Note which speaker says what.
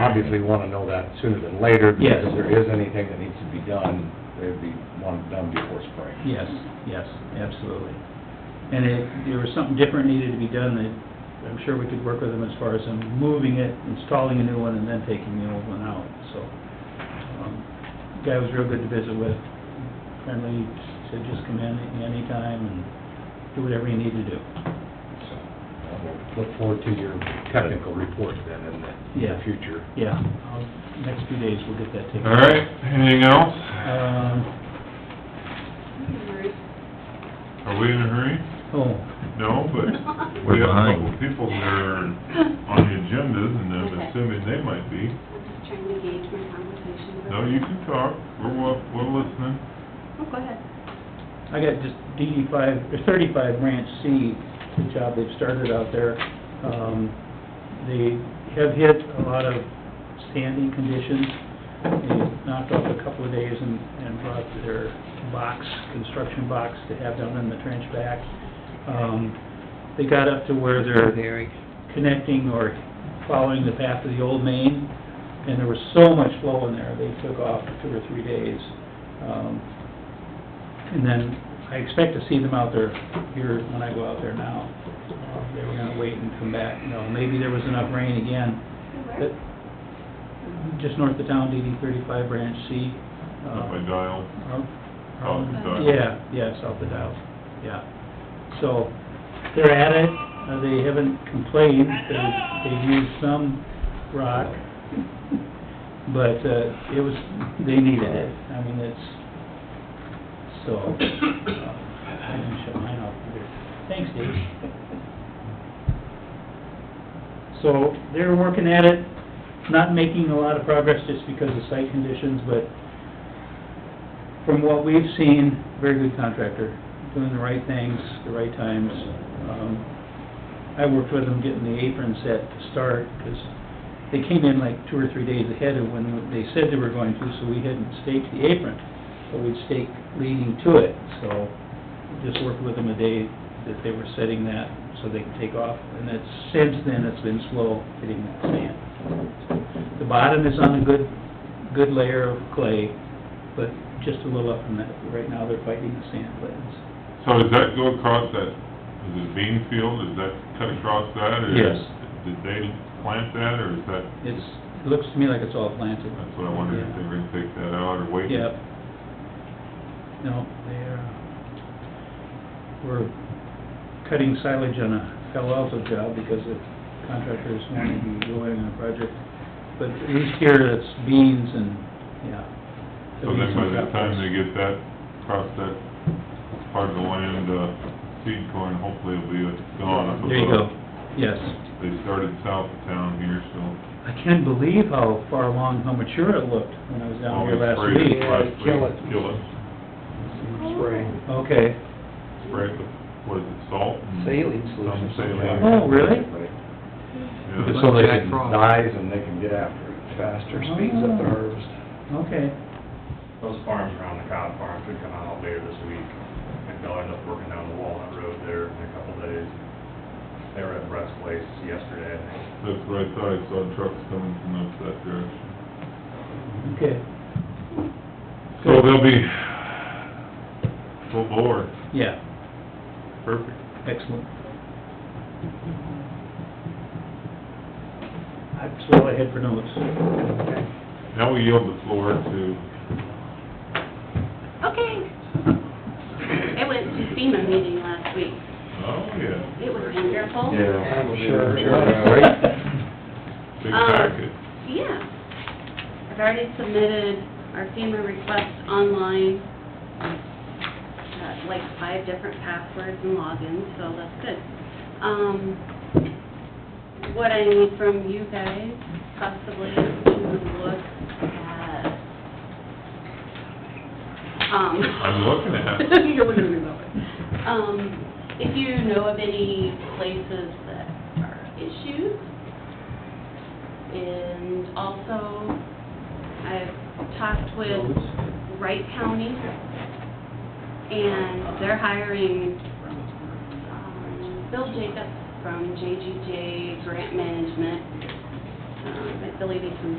Speaker 1: obviously wanna know that sooner than later.
Speaker 2: Yes.
Speaker 1: Because if there is anything that needs to be done, they'd be, want it done before spring.
Speaker 2: Yes, yes, absolutely. And if there was something different needed to be done, that I'm sure we could work with them as far as them moving it, installing a new one, and then taking the old one out, so. um, Guy was real good to visit with, friendly, said just come in anytime and do whatever you need to do.
Speaker 1: So, uh, we'll Look forward to your technical report then in the, in
Speaker 2: Yeah.
Speaker 1: the future.
Speaker 2: Yeah, um, next few days, we'll get that taken.
Speaker 3: All right, anything else?
Speaker 2: Um,
Speaker 3: Are we in a hurry?
Speaker 2: oh,
Speaker 3: No, but we
Speaker 4: We're
Speaker 3: have a couple
Speaker 4: behind.
Speaker 3: people that are on the agendas, and I'm
Speaker 5: Okay.
Speaker 3: assuming they might be.
Speaker 5: I'm just trying to gauge my conversation. with-
Speaker 3: No, you can talk, we're, wa- we're listening.
Speaker 5: Oh, go ahead.
Speaker 2: I got just DD five, or thirty-five branch C, the job they've started out there. Um, they have hit a lot of sandy conditions. They knocked off a couple of days and, and brought their box, construction box to have down in the trench back. Um, they got up to where they're connecting or following the path of the old main, and there was so much flow in there, they took off for two or three days. Um, And then I expect to see them out there here when I go out there now. Uh, They were gonna wait and come back, you know, maybe there was enough rain again, but
Speaker 5: Where?
Speaker 2: just north of town, DD thirty-five branch C. uh,
Speaker 3: Up my dial,
Speaker 2: um,
Speaker 3: Oh,
Speaker 2: um,
Speaker 3: sorry.
Speaker 2: Yeah, yeah, south of Dow, yeah. So, they're at it, uh, they haven't complained, they- they've used some rock, but, uh, it was, they needed it, I mean, it's, so, uh, I didn't shut mine off either. Thanks, Dave. So, they're working at it, not making a lot of progress just because of site conditions, but from what we've seen, very good contractor, doing the right things, the right times. Um, I worked with them getting the apron set to start, because they came in like two or three days ahead of when they said they were going to, so we hadn't staked the apron, but we'd stake leading to it, so just worked with them a day that they were setting that, so they could take off, and that's, since then, it's been slow hitting that sand. The bottom is on a good, good layer of clay, but just a little up from that, right now they're fighting the sand plans.
Speaker 3: so does that go across that, is it bean field, does that cut across that? or
Speaker 2: Yes.
Speaker 3: Did they plant that, or is that,
Speaker 2: It's, it looks to me like it's all planted.
Speaker 3: that's what I wondered, if they were gonna take that out or wait?
Speaker 2: Yep. No, they're, we're cutting silage on a Palo Alto job because the contractors want to be going on a project. But at least here, it's beans and, yeah.
Speaker 3: So then by the time they get that, across that part of the land, uh, seed corn, hopefully it'll be gone.
Speaker 2: There you go, yes.
Speaker 3: They started south of town here, so.
Speaker 2: I can't believe how far along, how mature it looked when I was down here
Speaker 3: Always
Speaker 2: last
Speaker 3: spray it,
Speaker 2: week.
Speaker 3: last
Speaker 1: Yeah,
Speaker 3: week,
Speaker 1: kill it.
Speaker 3: Kill it.
Speaker 1: Spring.
Speaker 2: Okay,
Speaker 3: Spray it with, what is it, salt? and
Speaker 6: Saline solution.
Speaker 3: Some saline.
Speaker 2: Oh, really? Oh.
Speaker 3: Yeah.
Speaker 1: Just so they
Speaker 6: Jack
Speaker 1: can
Speaker 6: Frost.
Speaker 1: dies and they can get after it.
Speaker 6: faster, speeds
Speaker 2: Oh.
Speaker 6: up the harvest.
Speaker 2: okay.
Speaker 7: Those farms around the cow farm could come out later this week. And they'll end up working down the Walnut Road there in a couple days. They were at Brett's place yesterday, I think.
Speaker 3: That's what I thought, I saw trucks coming from up that direction.
Speaker 2: Okay,
Speaker 3: So they'll be full bore,
Speaker 2: yeah,
Speaker 3: perfect.
Speaker 2: excellent. That's all I had for notes.
Speaker 3: Now we yield the floor to
Speaker 5: Okay. I went to FEMA meeting last week.
Speaker 3: Oh, yeah,
Speaker 5: It was wonderful.
Speaker 6: I'm sure,
Speaker 3: big
Speaker 5: Um,
Speaker 3: packet.
Speaker 5: Yeah. I've already submitted our FEMA request online, uh, like five different passwords and logins, so that's good. Um, what I need from you guys possibly is to look at, um...
Speaker 3: I'm looking at it.
Speaker 5: You're looking at me, okay. Um, if you know of any places that are issues, and also, I've talked with Wright County, and they're hiring um, Bill Jacobs from JGJ Grant Management. Um, I believe he's from